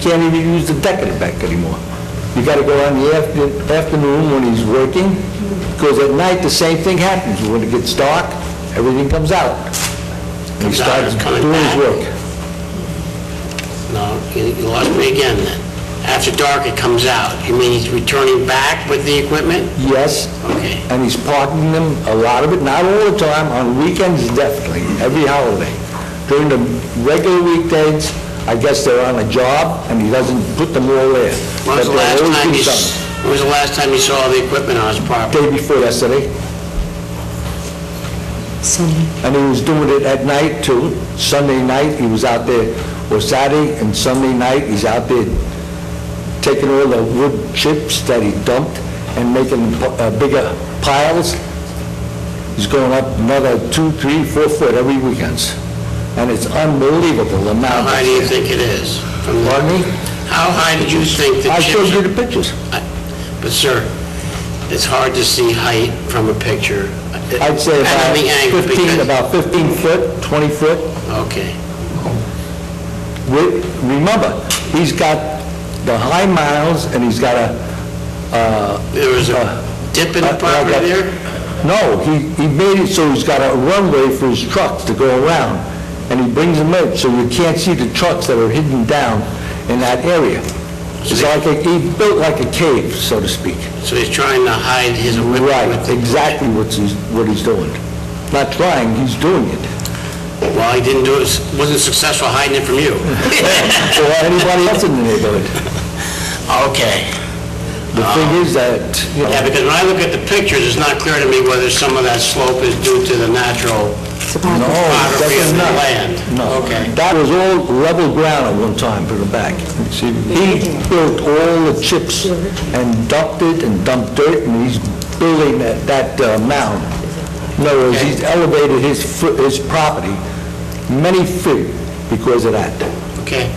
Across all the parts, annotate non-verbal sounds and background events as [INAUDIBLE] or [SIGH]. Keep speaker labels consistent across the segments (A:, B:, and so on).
A: can't even use the deck in the back anymore. You gotta go out in the after- afternoon when he's working, because at night, the same thing happens. When it gets dark, everything comes out. He
B: Comes out,
A: starts
B: it's coming
A: doing his
B: back.
A: work.
B: No, you you lost me again then. After dark, it comes out. You mean he's returning back with the equipment?
A: Yes,
B: Okay.
A: and he's parking them, a lot of it, not all the time, on weekends definitely, every holiday. During the regular weekdays, I guess they're on a job, and he doesn't put them all there.
B: When was the
A: But they'll
B: last
A: always
B: time
A: do
B: you, s-
A: something.
B: when was the last time you saw the equipment on his property?
A: Day before yesterday,
C: Sunday.
A: and he was doing it at night too, Sunday night, he was out there, or Saturday and Sunday night, he's out there taking all the wood chips that he dumped and making uh, bigger piles. He's going up another two, three, four foot every weekends. And it's unbelievable the
B: How
A: amount.
B: high do you think it is? from the-
A: Pardon me?
B: How high did you think the
A: I showed
B: chips
A: you
B: are?
A: the pictures.
B: But sir, it's hard to see height from a picture.
A: I'd say
B: And
A: about
B: the angle,
A: 15,
B: because-
A: about 15 foot, 20 foot.
B: Okay.
A: Re- Remember, he's got the high miles and he's got a, uh,
B: There was
A: Uh,
B: a dip in the
A: Uh, like
B: property
A: a-
B: there?
A: No, he, he made it so he's got a runway for his trucks to go around, and he brings them in, so you can't see the trucks that are hidden down in that area. It's like, a- he built like a cave, so to speak.
B: So he's trying to hide his equipment
A: Right,
B: with it.
A: exactly what he's, what he's doing. Not trying, he's doing it.
B: Well, he didn't do it, wasn't successful hiding it from you.
A: Or anybody else in the neighborhood.
B: [LAUGHS] Okay. Um,
A: The thing is that, you
B: Yeah,
A: know,
B: because when I look at the pictures, it's not clear to me whether some of that slope is due to the natural
A: no,
B: topography
A: that's
B: of the
A: not.
B: land.
A: No.
B: Okay.
A: That was all level ground at one time from the back. See, He built all the chips and dumped it and dumped dirt, and he's building that that uh, mound. In other words, he's elevated his fo- his property many feet because of that.
B: Okay.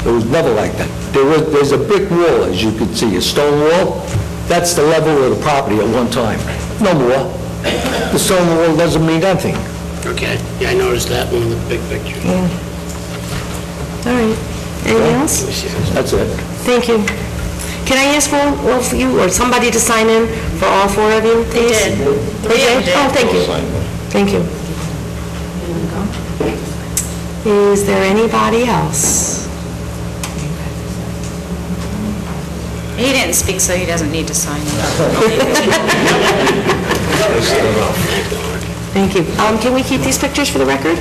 A: It was never like that. There was, there's a brick wall, as you can see, a stone wall. That's the level of the property at one time. No more. The stone wall doesn't mean anything.
B: Okay. Yeah, I noticed that one in the big picture.
C: Yeah. All right. Anything else?
A: That's it.
C: Thank you. Can I ask all all of you, or somebody to sign in for all four of you, please? They did. Oh, thank you. Thank you. Is there anybody else?
D: He didn't speak, so he doesn't need to sign it.
C: Thank you. Um, Can we keep these pictures for the record?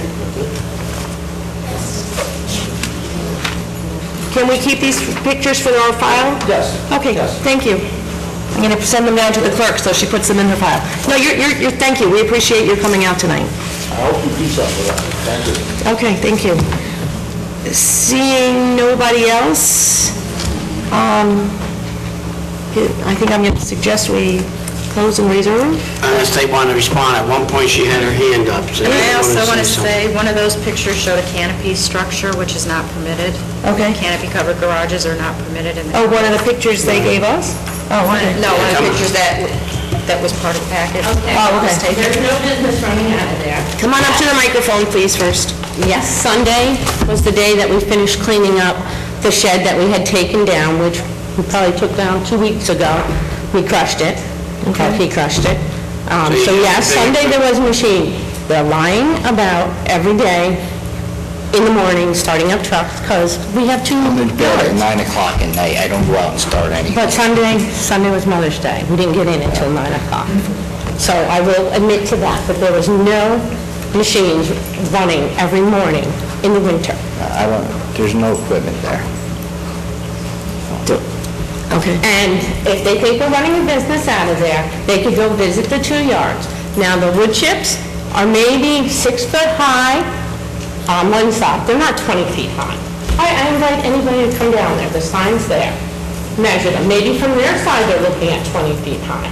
C: Can we keep these pictures for our file?
A: Yes.
C: Okay,
A: Yes.
C: thank you. I'm going to send them down to the clerk, so she puts them in her file. No, you're, you're, you're- thank you, we appreciate your coming out tonight.
A: I hope you do something about it. Thank you.
C: Okay, thank you. Seeing nobody else, um, I think I'm going to suggest we close and reserve.
B: Unless they want to respond, at one point she had her hand up. so
D: And I
B: you
D: also want to
B: something.
D: say, one of those pictures showed a canopy structure, which is not permitted.
C: Okay.
D: Canopy-covered garages are not permitted in the...
C: Oh, one of the pictures they gave us? Oh, okay.
D: No, one of the pictures that, that was part of the package.
C: Oh, okay.
D: There's no business running out of there.
C: Come on up to the microphone, please, first.
E: Yes, Sunday was the day that we finished cleaning up the shed that we had taken down, which we probably took down two weeks ago. We crushed it, Well, he crushed it. Um,
B: So
E: So
B: you
E: yes,
B: used the big
E: Sunday there was a machine. They're lying about every day in the morning, starting up trucks, because we have 2
F: I'm in bed at 9
E: yards.
F: o'clock at night, I don't go out and start any.
E: But Sunday, Sunday was Mother's Day. We didn't get in until 9 o'clock. So I will admit to that, but there was no machines running every morning in the winter.
F: I don't, there's no equipment there.
C: Okay.
E: And if they think we're running a business out of there, they could go visit the two yards. Now, the wood chips are maybe six foot high on one side, they're not 20 feet high. I I invite anybody to come down there, the sign's there, measure them, maybe from their side they're looking at 20 feet high.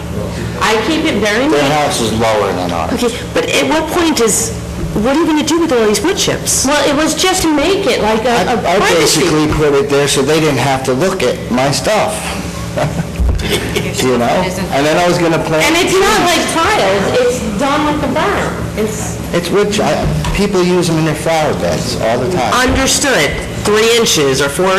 E: I keep it very
F: Their
E: neat.
F: house is lower than ours.
C: Okay, but at what point is, what are you going to do with all these wood chips?
E: Well, it was just to make it like a a
F: I I
E: privacy.
F: basically put it there so they didn't have to look at my stuff. You know? And then I was gonna
E: And
F: plant,
E: it's not like tiles, it's done with a berm. It's,
F: it's which, people use them in their flower beds all the time.
C: Understood, three inches or four